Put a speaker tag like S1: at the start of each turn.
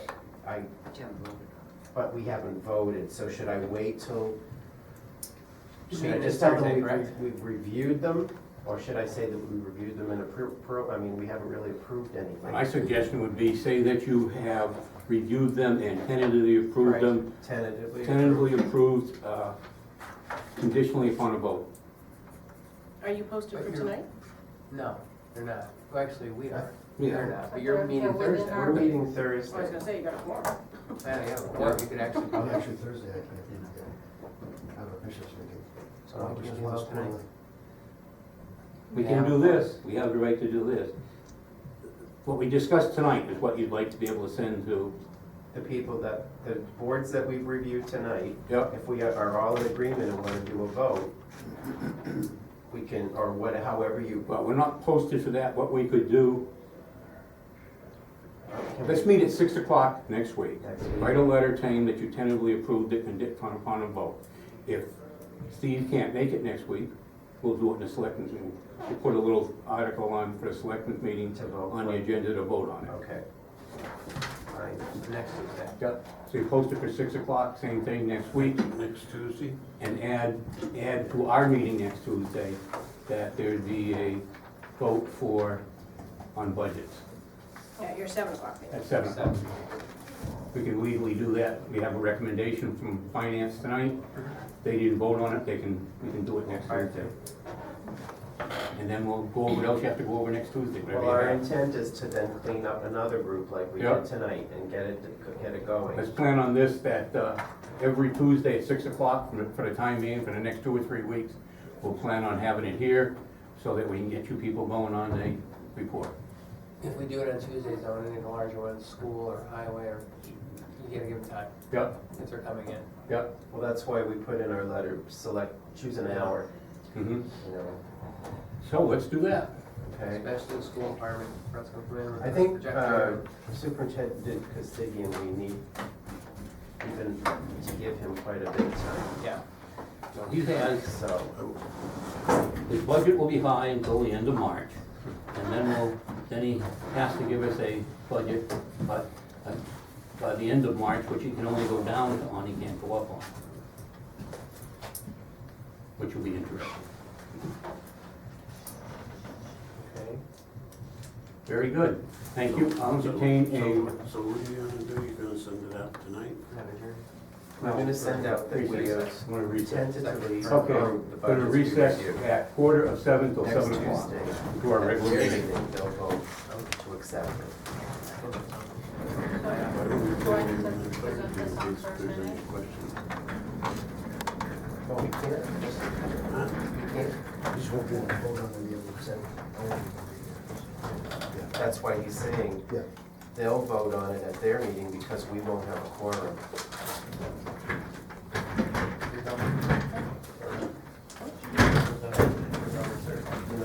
S1: I,
S2: Jim voted on
S1: but we haven't voted, so should I wait till? Should I
S3: mean
S1: just
S3: this
S1: tell them
S3: Thursday,
S1: we've,
S3: correct?
S1: re- we've reviewed them, or should I say that we reviewed them and approved, I mean, we haven't really approved
S3: My
S1: anything?
S3: suggestion would be, say that you have reviewed them and tentatively approved them,
S1: Tentatively?
S3: tentatively approved, uh, conditionally upon a vote.
S4: Are you posted
S5: But
S4: for
S5: you're-
S4: tonight?
S5: No, they're not. Well, actually, we are.
S3: Yeah.
S5: They're not, but you're meeting
S2: Yeah, within
S5: Thursday.
S2: our-
S1: We're meeting
S4: I was
S1: Thursday.
S4: gonna say, you got a form.
S5: Yeah, yeah, or you could actually.
S6: Oh, actually Thursday, I can't, do that. I have a bishop's meeting.
S1: So I'll
S6: Which
S1: just
S6: is
S1: go
S6: once
S1: out tonight.
S6: quarterly.
S3: We can do this, we have the right to do this. What we discussed tonight is what you'd like to be able to send to.
S1: The people that, the boards that we've reviewed tonight,
S3: Yep.
S1: if we are- are all in agreement and wanna do a vote, we can, or what, however you.
S3: Well, we're not posted for that, what we could do,
S1: can we-
S3: let's meet at six o'clock next week.
S1: Next week.
S3: Write a letter saying that you tentatively approved it and did upon upon a vote. If Steve can't make it next week, we'll do it in the selectmen's meeting. We'll put a little article on for the selectmen's meeting
S1: To vote
S3: on the
S1: for.
S3: agenda to vote on it.
S1: Okay. Fine, next is that.
S3: Yep. So you post it for six o'clock, same thing next week,
S7: Next Tuesday?
S3: and add, add to our meeting next Tuesday that there'd be a vote for, on budgets
S4: Yeah, your seven o'clock meeting.
S3: at seven o'clock. We can legally do that. We have a recommendation from finance tonight. They didn't vote on it, they can, we can do it next Tuesday. And then we'll go over, what else you have to go over next Tuesday,
S1: Well, our
S3: whatever you have.
S1: intent is to then clean up another group like we
S3: Yep.
S1: did tonight and get it, get it going.
S3: Let's plan on this, that uh, every Tuesday at six o'clock for the- for the time being, for the next two or three weeks, we'll plan on having it here so that we can get you people going on the report.
S5: If we do it on Tuesdays, though, any of the larger ones, school or highway, or you gotta give them time
S3: Yep,
S5: if they're coming in.
S3: yep.
S1: Well, that's why we put in our letter, select, choose an hour,
S3: mhm.
S1: you know,
S3: So let's do that.
S1: okay?
S5: Especially the school department, Brett's gonna come in with.
S1: I
S5: a
S1: think uh,
S5: projector.
S1: Superintendent Costigian, we need even to give him quite a bit of time,
S5: Yeah.
S3: So he has
S1: so.
S3: His budget will be high until the end of March, and then we'll, then he has to give us a budget, but uh, by the end of March, which he can only go down on, he can't go up on. Which will be interesting.
S1: Okay.
S3: Very good. Thank you. I'll entertain a,
S7: So so what are you gonna do? You're gonna send it out tonight?
S5: Have a jury.
S1: I'm gonna send out the videos.
S3: want to recess.
S1: Tentatively.
S3: Okay,
S1: um, the
S3: going
S1: budgets
S3: to
S1: we
S3: recess
S1: review.
S3: at quarter of seven till
S1: Next
S3: seven o'clock.
S1: Tuesday.
S3: To our regular
S1: Next
S3: meeting.
S1: Tuesday, They'll vote um, to accept it.
S7: Why don't we
S2: Do I
S7: put it in
S2: present-
S7: the
S2: present
S7: budget
S2: this on
S7: in case there's
S2: Thursday
S7: any
S2: night?
S7: questions?
S1: Well, we Oh, can't, just-
S7: Huh?
S1: we can't Oh,
S6: Just won't be able to hold on to the other side. I won't be able to
S1: That's why he's saying
S6: be there. Yeah,
S1: they'll vote on it at their meeting because we won't have a quorum.